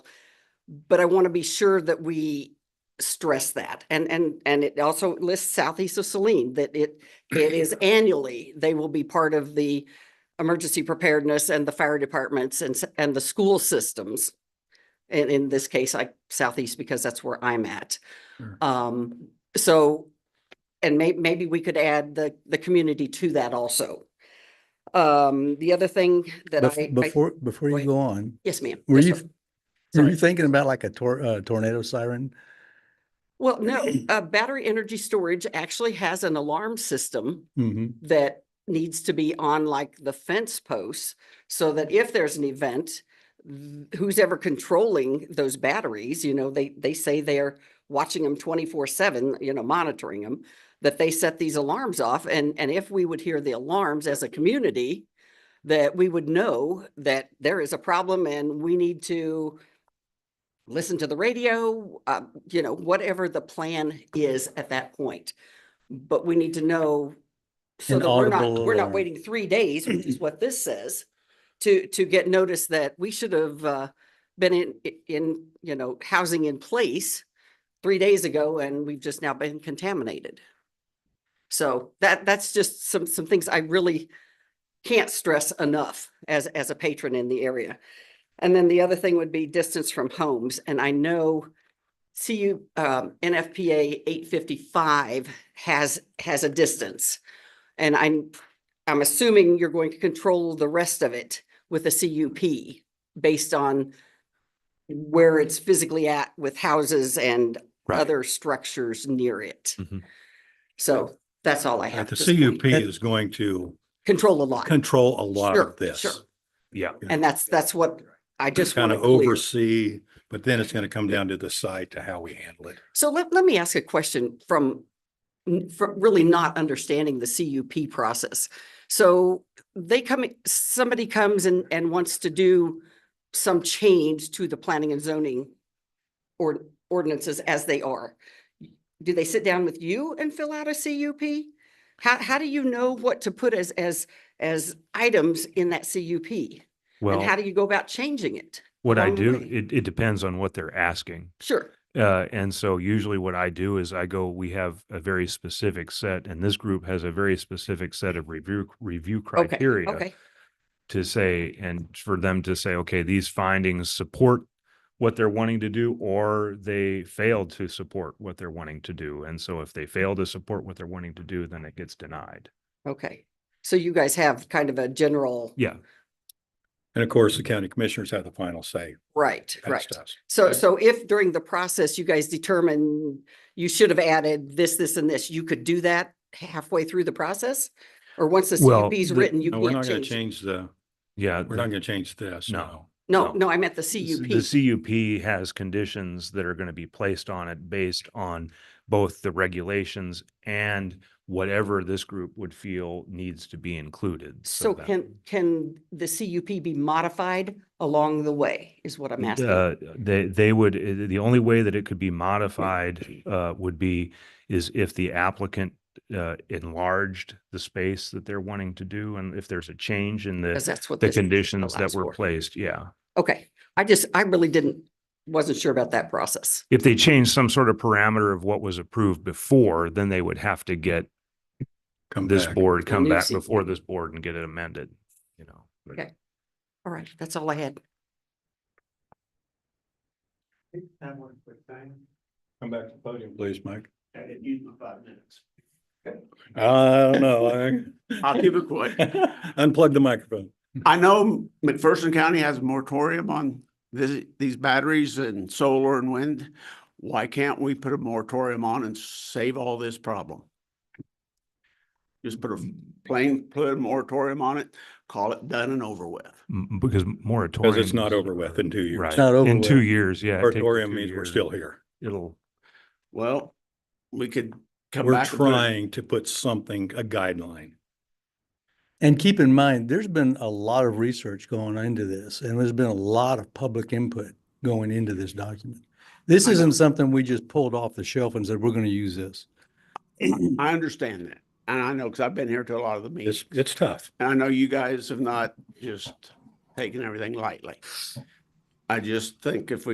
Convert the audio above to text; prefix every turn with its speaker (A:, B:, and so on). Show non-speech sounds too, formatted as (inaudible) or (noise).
A: But I want to be sure that we stress that. And, and, and it also lists southeast of Celine, that it, it
B: (clears throat)
A: is annually, they will be part of the emergency preparedness and the fire departments and, s- and the school systems. And in this case, I southeast because that's where I'm at.
B: Sure.
A: Um, so, and may, maybe we could add the, the community to that also. Um, the other thing that
B: Bef-
A: I. I-
B: Before, before
A: Wait.
B: you go on,
A: Yes, ma'am.
B: were
A: Yes,
B: you,
A: sir.
B: were
A: Sorry.
B: you thinking about like a tor- uh, tornado siren?
A: Well, no, uh, battery energy storage actually has an alarm system
B: hmm
A: that needs to be on like the fence posts so that if there's an event, th- who's ever controlling those batteries, you know, they, they say they're watching them twenty-four seven, you know, monitoring them, that they set these alarms off. And, and if we would hear the alarms as a community, that we would know that there is a problem and we need to listen to the radio, uh, you know, whatever the plan is at that point. But we need to know so
B: An
A: that we're
B: audible
A: not, we're not
B: alarm.
A: waiting three days, which is what this says, to, to get notice that we should have, uh, been in, i- in, you know, housing in place three days ago and we've just now been contaminated. So that, that's just some, some things I really can't stress enough as, as a patron in the area. And then the other thing would be distance from homes. And I know CU, um, NFPA eight fifty-five has, has a distance. And I'm, I'm assuming you're going to control the rest of it with a CUP based on where it's physically at with houses and other structures near it.
C: Mhm.
A: So that's all I
D: Right,
A: have.
D: The
A: at this point.
D: CUP is going to
A: Control a lot.
D: control a lot
A: Sure,
D: of this.
A: sure.
C: Yeah.
A: And that's, that's what I just want
D: Kind
A: to
D: of
A: clear.
D: oversee, but then it's going to come down to the site to how we handle it.
A: So let, let me ask a question from, n- from really not understanding the CUP process. So they come, somebody comes and, and wants to do some change to the planning and zoning or ordinances as they are. Do they sit down with you and fill out a CUP? How, how do you know what to put as, as, as items in that CUP? And how
C: Well,
A: do you go about changing it?
C: what I
A: along the
C: do,
A: way?
C: it, it depends on what they're asking.
A: Sure,
C: Uh, and so usually what I do is I go, we have a very specific set, and this group has a very specific set of review, review
A: okay,
C: criteria
A: okay,
C: to say, and for them to say, okay, these findings support what they're wanting to do, or they fail to support what they're wanting to do. And so if they fail to support what they're wanting to do, then it gets denied.
A: okay. So you guys have kind of a general.
C: Yeah.
D: And of course, the county commissioners have the final say.
A: Right,
D: That's
A: right.
D: us.
A: So, so if during the process you guys determine you should have added this, this and this, you could do that halfway through the process? Or once the
C: Well,
A: CUP is
C: the-
A: written, you
D: No, we're
A: can't
D: not going to
A: change? it?
D: change the,
C: Yeah.
D: we're
C: the-
D: not going to change this.
C: No.
A: No,
C: no.
A: no, I meant the
C: s-
A: CUP.
C: The CUP has conditions that are going to be placed on it based on both the regulations and whatever this group would feel needs to be included.
A: So
C: that-
A: can, can the CUP be modified along the way is what I'm asking.
C: Uh, They, they would, uh, the only way that it could
A: (clears throat)
C: be modified uh, would be is if the applicant uh, enlarged the space that they're wanting to do and if there's a change in
A: Because
C: the,
A: that's what.
C: the
A: this
C: conditions that
A: allows
C: were
A: for.
C: placed, yeah.
A: Okay, I just, I really didn't, wasn't sure about that process.
C: if they change some sort of parameter of what was approved before, then they would have to get
D: Come
C: this
D: back.
C: board,
A: The
C: come
A: new
C: back
A: seat.
C: before this board and get it amended, you know. but-
A: Okay. All right, that's all I had.
E: Have one quick thing,
D: Come back to the podium, please, Mike.
E: and it used my five minutes.
D: I don't know.
C: (laughs)
E: I'll keep it quick.
D: (laughs) Unplug the microphone.
E: I know McPherson County has a moratorium on this, these batteries and solar and wind. Why can't we put a moratorium on and save all this problem? Just put a plain, put a moratorium on it, call it done and over with.
C: M- Because moratorium.
D: Because it's not
C: is-
D: over with in two years.
C: Right.
B: not over
C: In two
B: with.
C: years, yeah. it takes
D: Moratorium
C: two
D: means we're
C: years.
D: still here.
C: It'll,
E: Well, we could come
D: We're
E: back. and put it-
D: trying to put something, a guideline.
B: And keep in mind, there's been a lot of research going into this and there's been a lot of public input going into this document. This
E: I know.
B: isn't something we just pulled off the shelf and said, we're going to use this.
E: I understand that, and I know, because I've been here to a lot of the meetings.
D: It's, it's tough.
E: And I know you guys have not just taken everything lightly. I just think if we